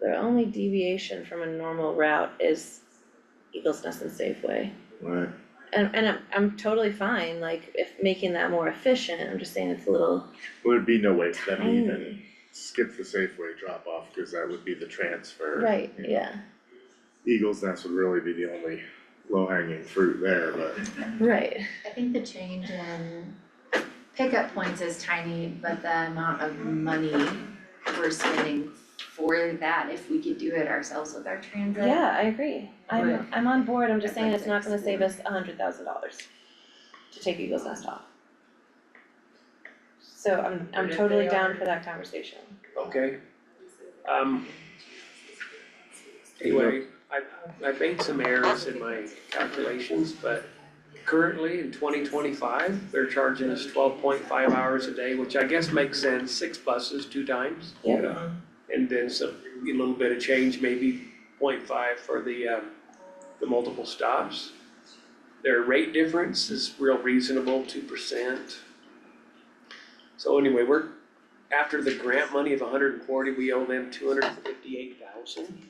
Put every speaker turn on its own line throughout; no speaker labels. Their only deviation from a normal route is Eagles Nest and Safeway.
right,
And and I'm I'm totally fine, like if making that more efficient, I'm just saying it's a little Mm,
Would be no way for them to even
tiny.
skip the Safeway drop off, cause that would be the transfer.
Right,
you know.
yeah,
Eagles Nest would really be the only low hanging fruit there, but
right,
I think the change in pickup points is tiny, but the amount of money we're spending for that, if we could do it ourselves with our transit.
yeah, I agree. I'm I'm on board, I'm just saying it's not gonna save
Right.
us a hundred thousand dollars to take Eagles Nest off. So I'm I'm
But if
totally
they
down
are-
for that conversation.
okay? Um. Anyway, I, I made some errors in my calculations, but currently in twenty twenty-five, they're charging us twelve point five hours a day, which I guess makes sense, six buses, two times.
Yep.
Yeah. And then some, a little bit of change, maybe 0.5 for the, um, the multiple stops. Their rate difference is real reasonable, two percent. So anyway, we're, after the grant money of hundred and forty, we owe them two hundred and fifty-eight thousand.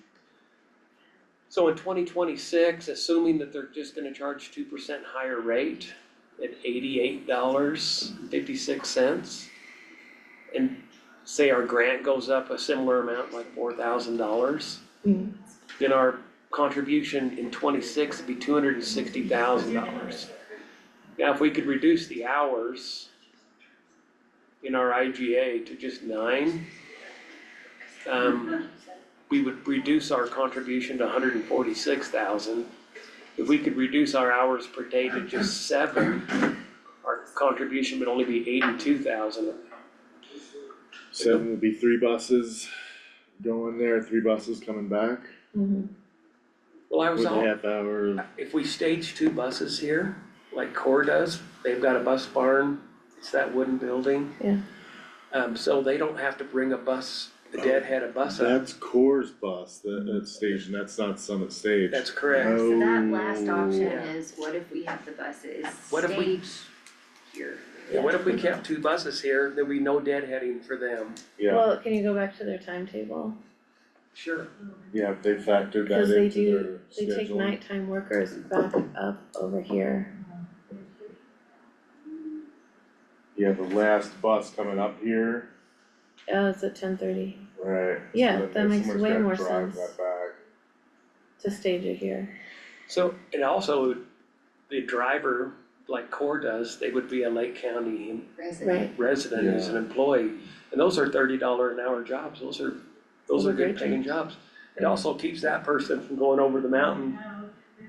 So in twenty twenty-six, assuming that they're just gonna charge two percent higher rate at eighty-eight dollars fifty-six cents. And say our grant goes up a similar amount, like four thousand dollars.
Mhm.
Then our contribution in twenty-six would be two hundred and sixty thousand dollars. Now, if we could reduce the hours in our IGA to just nine, um, we would reduce our contribution to hundred and forty-six thousand. If we could reduce our hours per day to just seven, our contribution would only be eighty-two thousand.
seven would be three buses going there, three buses coming back.
Mm-hmm. Well, I was
With a
all,
half hour,
if we stage two buses here, like Core does, they've got a bus barn, it's that wooden building.
Yeah.
Um, so they don't have to bring a bus, the deadhead a bus up,
that's Coors bus, that, that station, that's not Summit Stage.
that's correct.
So that last option
Oh.
is what if we have the buses
What if we-
staged here?
And what if we kept two buses here, there'd be no deadheading for them?
Yeah,
Well, can you go back to their timetable?
Sure.
yeah, they factored
Because
that
they
into
do-
their
They
schedule.
take nighttime workers back up over here.
Yeah, the last bus coming up here,
Oh, it's at ten thirty
right. so
Yeah,
then
that
if
makes
someone's
way
gotta
more
drive
sense.
that back.
to stage it here.
So, and also, the driver, like Core does, they would be a Lake County
Resident,
resident as an employee. And those are thirty dollar an hour jobs, those are, those
Those
are
are
good
great
paying jobs. It also keeps that person from going over the mountain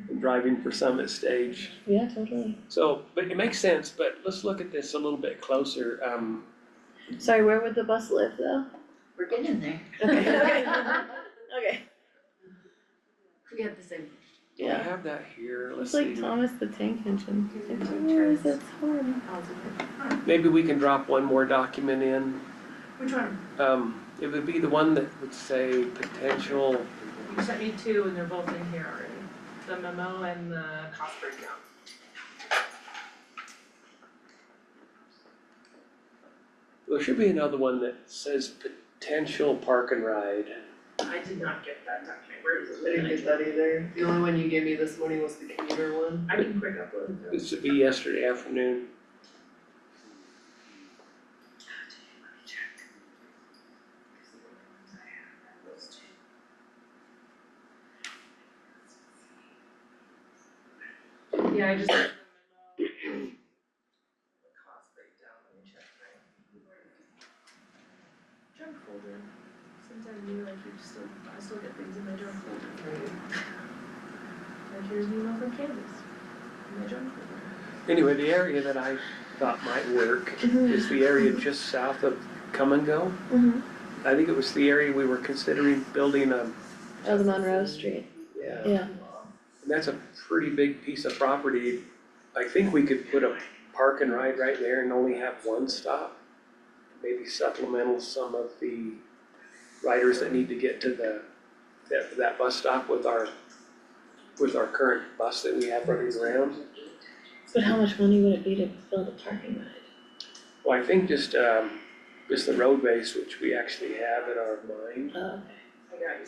and driving for Summit Stage.
Yeah, totally.
So, but it makes sense, but let's look at this a little bit closer, um,
Sorry, where would the bus live though?
we're getting there.
Okay. Okay.
We have the same,
do we
Yeah.
have that here, let's
It's
see.
like Thomas the Tank Engine.
There's no
Where is
turns.
it from?
Maybe we can drop one more document in,
Which one?
um, it would be the one that would say potential,
You sent me two and they're both in here already, the memo and the cost breakdown.
there should be another one that says potential park and ride.
I did not get that document, where is it?
I didn't get that either, the only one you gave me this morning was the commuter one.
I can quick upload it.
It should be yesterday afternoon.
Yeah, I just. got the memo. The cost breakdown, let me check my. Junk folder, since I'm new, I keep still, I still get things in my junk folder. Like here's an email from Candace, in my junk folder.
Anyway, the area that I thought might work is the area just south of Come and Go.
Mhm.
I think it was the area we were considering building a,
Oh, the Monroe Street,
yeah, and
yeah.
that's a pretty big piece of property. I think we could put a park and ride right there and only have one stop. Maybe supplemental some of the riders that need to get to the, that, that bus stop with our, with our current bus that we have running around.
But how much money would it be to build a parking lot?
Well, I think just, um, just the road base, which we actually have in our mind,
Oh,
I got you